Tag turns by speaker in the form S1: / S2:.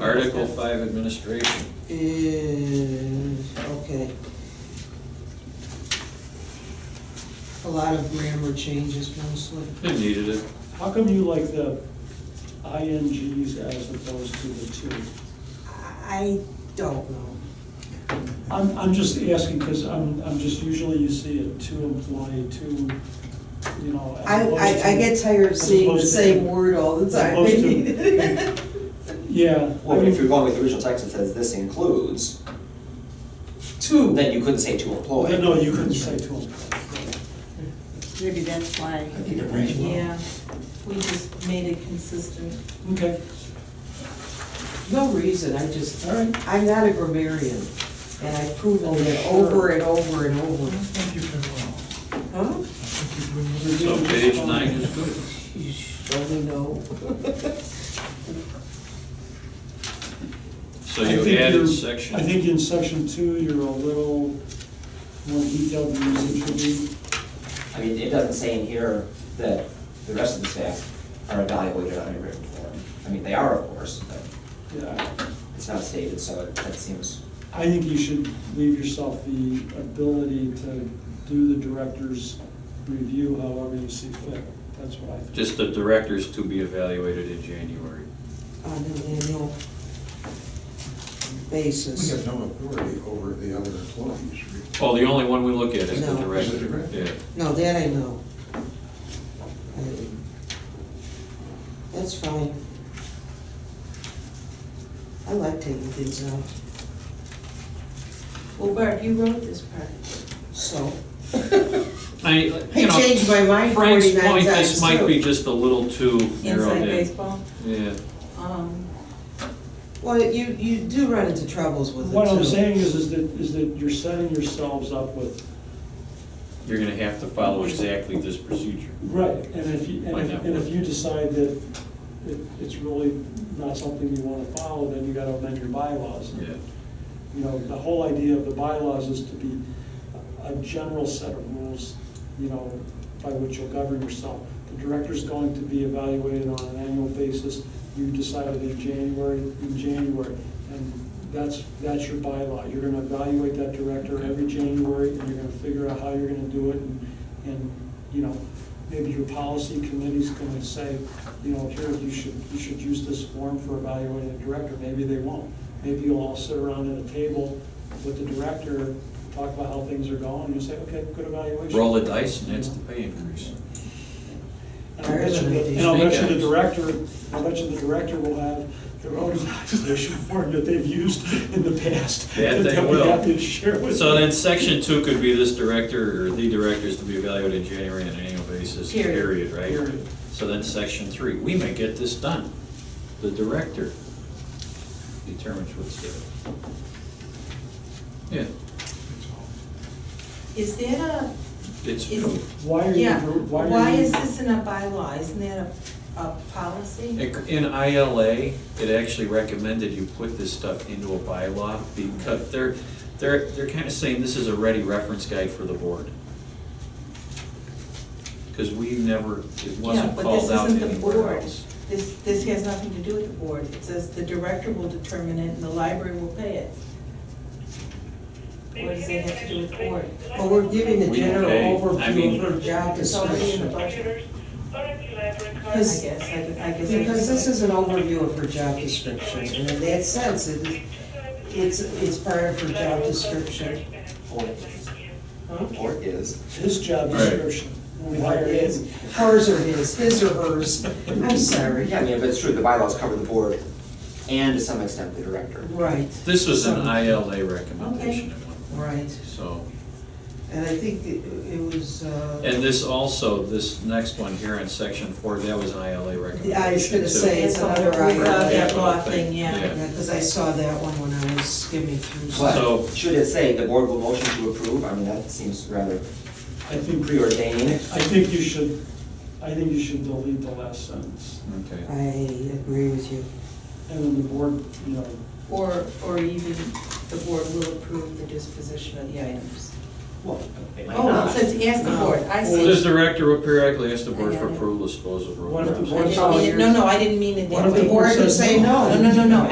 S1: Article five administration,
S2: is, okay. A lot of grammar changes mostly.
S1: they needed it.
S3: How come you like the INGs as opposed to the two?
S2: I don't know.
S3: I'm, I'm just asking because I'm, I'm just, usually you see a two employee, two, you know. as
S2: I, I,
S3: opposed
S2: I
S3: to-
S2: get tired of seeing the
S3: opposed to-
S2: same word all the
S3: as
S2: time.
S3: opposed to- Yeah. I
S4: Well, if
S3: mean,
S4: you're going with the original text that says this includes,
S2: Two.
S4: then you couldn't say to employ.
S3: then No, you couldn't say two employees.
S5: Maybe that's why,
S6: I think it rings well.
S5: yeah, we just made it consistent.
S3: Okay,
S2: No reason, I just,
S3: all right.
S2: I'm not a grammarian, and I've proven that over and over and over.
S6: Thank you very well.
S2: Huh?
S6: I think you're doing really
S1: So page nine is good.
S2: You surely know.
S1: So
S3: I
S1: you
S3: think
S1: added
S3: you're-
S1: section.
S3: I think in section two, you're a little more detailed than you should be.
S4: I mean, it doesn't say in here that the rest of the staff are evaluated on a written form. I mean, they are, of course, but
S3: Yeah.
S4: it's not stated, so it- that seems,
S3: I think you should leave yourself the ability to do the director's review however you see fit. That's what I think.
S1: Just the directors to be evaluated in January.
S2: On an annual
S6: We
S2: basis.
S6: have no authority over the other employees. We-
S1: Oh, the only one we look at is the
S2: No.
S1: director.
S6: Is the director.
S1: Yeah.
S2: No, that I know. I- That's fine. I like taking things out,
S5: Well, Barb, you wrote this part.
S2: so.
S1: I,
S2: I
S1: you know,
S2: changed my mind
S1: Frank's
S2: 49
S1: point,
S2: times,
S1: this might
S2: too.
S1: be just a little too narrow.
S5: Inside
S1: there.
S5: baseball,
S1: Yeah,
S5: um,
S2: Well, you, you do run into troubles with it too.
S3: What I'm saying is, is that, is that you're setting yourselves up with,
S1: you're gonna have to follow exactly this procedure.
S3: right, and if you, and
S1: Why
S3: if,
S1: not?
S3: and if you decide that it, it's really not something you wanna follow, then you gotta amend your bylaws.
S1: Yeah.
S3: You know, the whole idea of the bylaws is to be a general set of rules, you know, by which you'll govern yourself. The director's going to be evaluated on an annual basis. You decided in January, in January, and that's, that's your bylaw. You're gonna evaluate that director every January, and you're gonna figure out how you're gonna do it, and, and, you know, maybe your policy committee's gonna say, you know, here, you should, you should use this form for evaluating a director. Maybe they won't. Maybe you'll all sit around at a table with the director, talk about how things are going, and you say, okay, good evaluation.
S1: Roll the dice and that's the pay increase.
S3: And I'll bet you the- and I'll bet you the director, I'll bet you the director will have their own evaluation form that they've used in the past.
S1: Yeah,
S3: that
S1: they
S3: they'll be
S1: will.
S3: happy to share with
S1: So
S3: you.
S1: then section two could be this director or the directors to be evaluated in January on an annual basis,
S5: Period.
S1: period, right?
S3: Period.
S1: So then section three, we may get this done. The director determines what's due. Yeah,
S6: That's all.
S5: is that a,
S1: it's
S5: Is-
S1: new.
S3: Why are you,
S5: yeah,
S3: why are you?
S5: why is this in a bylaw, isn't that a, a policy?
S1: In ILA, it actually recommended you put this stuff into a bylaw because they're, they're, they're kind of saying this is a ready reference guide for the board. Because we never, it wasn't
S5: Yeah,
S1: called out
S5: But this isn't the
S1: anywhere
S5: board,
S1: else.
S5: this, this has nothing to do with the board, it says the director will determine it and the library will pay it. What does that have to do with the board?
S2: But we're giving the
S1: We
S2: general
S1: pay- I
S2: overview
S1: mean-
S2: of her job
S5: It's already in the
S2: description.
S5: budget, I
S2: Because-
S5: guess, I, I guess. I
S2: Because
S5: just-
S2: this is an overview of her job description, and in that sense, it is, it's, it's part of her job description.
S4: or, or is.
S3: His job
S1: Right.
S3: description, when we hire him.
S2: Hers or his, his or hers, I'm sorry.
S4: Yeah, I mean, but it's true, the bylaws cover the board and to some extent the director.
S2: Right,
S1: This was an ILA recommendation at one point,
S2: right,
S1: so.
S2: and I think it it was, uh,
S1: And this also, this next one here in section four, that was an ILA recommendation.
S2: Yeah, I was gonna
S1: too.
S2: say, it's another
S5: We saw that
S1: IRA.
S5: law thing, yeah.
S2: because I saw that one when I was skimming through. some-
S1: So-
S4: But should it say the board will motion to approve? I mean, that seems rather
S3: I think,
S4: preordained.
S3: I think you should, I think you should delete the last sentence.
S1: Okay.
S2: I agree with you.
S3: And then the board, you know,
S5: Or, or even the board will approve the disposition of the items.
S4: Well, it might
S5: Oh,
S4: not.
S5: it says ask the board, I
S1: Well, the
S5: see.
S1: director will periodically ask the
S5: I
S1: board
S5: got
S1: for
S5: it.
S1: approval, disposal of.
S3: What if the
S1: road projects.
S3: board tells
S5: No, no, I didn't mean it
S3: What
S5: that
S3: if
S5: way.
S3: the board
S2: Or
S3: says
S2: say no.
S5: No, no, no, no,